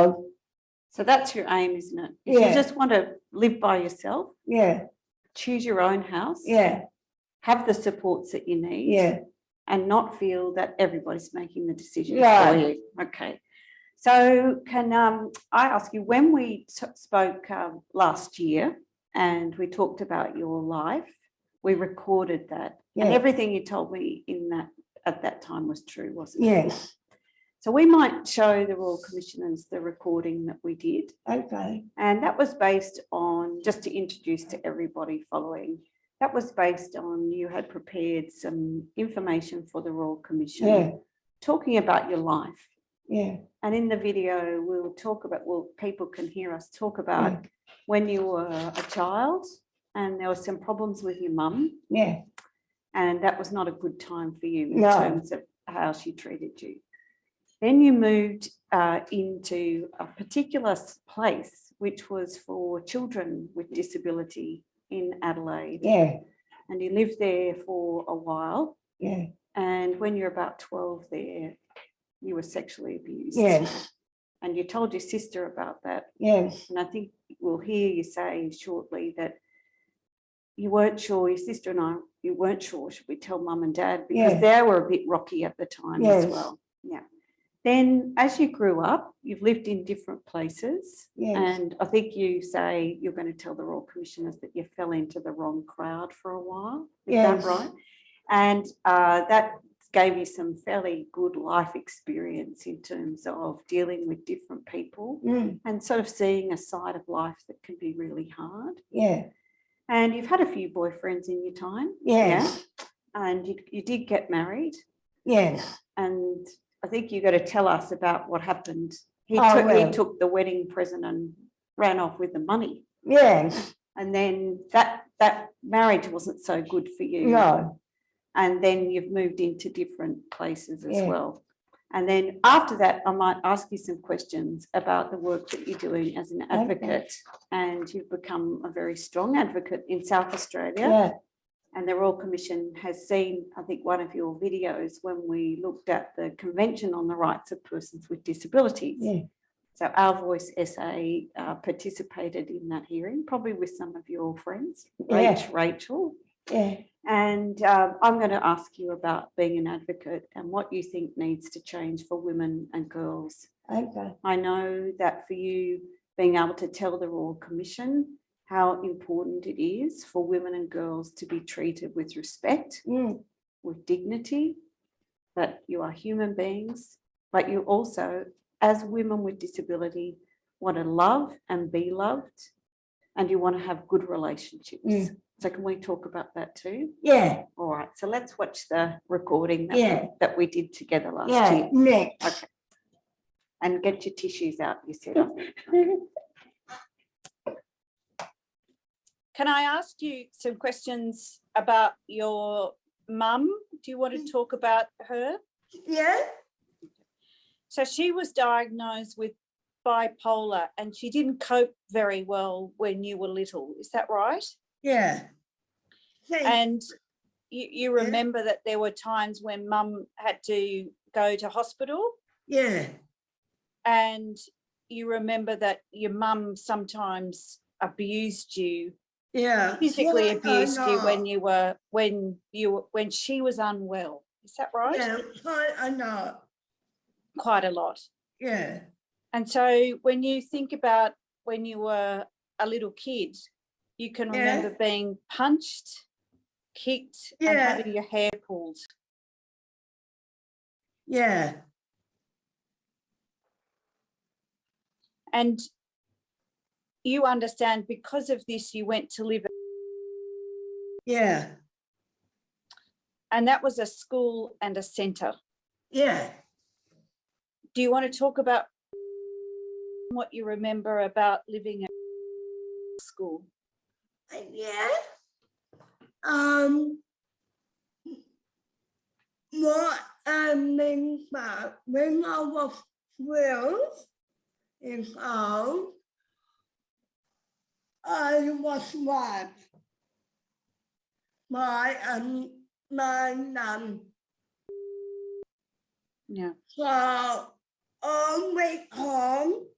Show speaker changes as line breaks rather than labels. of,
So that's your aim, isn't it? If
Yeah.
you just want to live by yourself,
yeah,
choose your own house.
yeah,
Have the supports that you need.
yeah,
And not feel that everybody's making the decisions for
Right.
you. Okay. So can um, I ask you, when we t- spoke um, last year and we talked about your life, we recorded that. And
Yeah.
everything you told me in that, at that time was true, wasn't it?
yes,
So we might show the Royal Commissioners the recording that we did.
okay,
And that was based on, just to introduce to everybody following, that was based on you had prepared some information for the Royal
yeah,
Commission, talking about your life.
yeah,
And in the video, we'll talk about, well, people can hear us talk about when you were a child and there were some problems with your mum
yeah,
and that was not a good time for you in
No.
terms of how she treated you. Then you moved uh, into a particular s- place which was for children with disability in Adelaide,
yeah,
and you lived there for a while.
yeah,
And when you're about 12, there you were sexually abused.
yes,
And you told your sister about that.
yes,
And I think we'll hear you say shortly that you weren't sure, your sister and I, you weren't sure, should we tell mum and dad? Because
Yeah.
they were a bit rocky at the time as
Yes.
well. Yeah. Then as you grew up, you've lived in different places.
yes,
And I think you say you're going to tell the Royal Commissioners that you fell into the wrong crowd for a while. Is
Yes.
that right? And uh, that gave you some fairly good life experience in terms of dealing with different people
mm,
and sort of seeing a side of life that can be really hard.
yeah,
And you've had a few boyfriends in your time.
yes,
And you, you did get married.
yes,
And I think you got to tell us about what happened. He,
I
took, he
will.
took the wedding present and ran off with the money.
yes,
And then that that marriage wasn't so good for you.
no,
And then you've moved into different places as
Yeah.
well. And then after that, I might ask you some questions about the work that you're doing as an advocate. And you've become a very strong advocate in South Australia.
yeah,
And the Royal Commission has seen, I think, one of your videos when we looked at the Convention on the Rights of Persons with Disabilities.
yeah,
So Our Voice SA uh, participated in that hearing, probably with some of your friends,
Yeah.
Rach, Rachel.
yeah,
And um, I'm going to ask you about being an advocate and what you think needs to change for women and girls.
okay,
I know that for you, being able to tell the Royal Commission how important it is for women and girls to be treated with respect,
mm,
with dignity, that you are human beings, but you also, as women with disability, want to love and be loved, and you want to have good relationships.
Mm.
So, can we talk about that too?
yeah,
All right, so let's watch the recording that,
Yeah.
we, that we did together last
yeah,
year
next.
and get your tissues out, you said. I think. Can I ask you some questions about your mum? Do you
Mm.
want to talk about her?
Yeah,
So she was diagnosed with bipolar and she didn't cope very well when you were little, is that right?
yeah. Thank-
And you, you
Yeah.
remember that there were times when mum had to go to hospital?
Yeah,
and you remember that your mum sometimes abused you
yeah.
physically
Yeah, I
abused you when
know.
you were when you were- when she was unwell is that right
Yeah, quite a lot,
quite a lot
yeah,
and so when you think about when you were a little kid you can
Yeah.
remember being punched kicked and
Yeah.
having your hair pulled
yeah,
and you understand because of this you went to live
yeah,
and that was a school and a centre
yeah.
do you want to talk about what you remember about living at school?
Yeah. Um. What I mean by when I was twelve years old, I was raped by um my mum.
Yeah.
So on my home,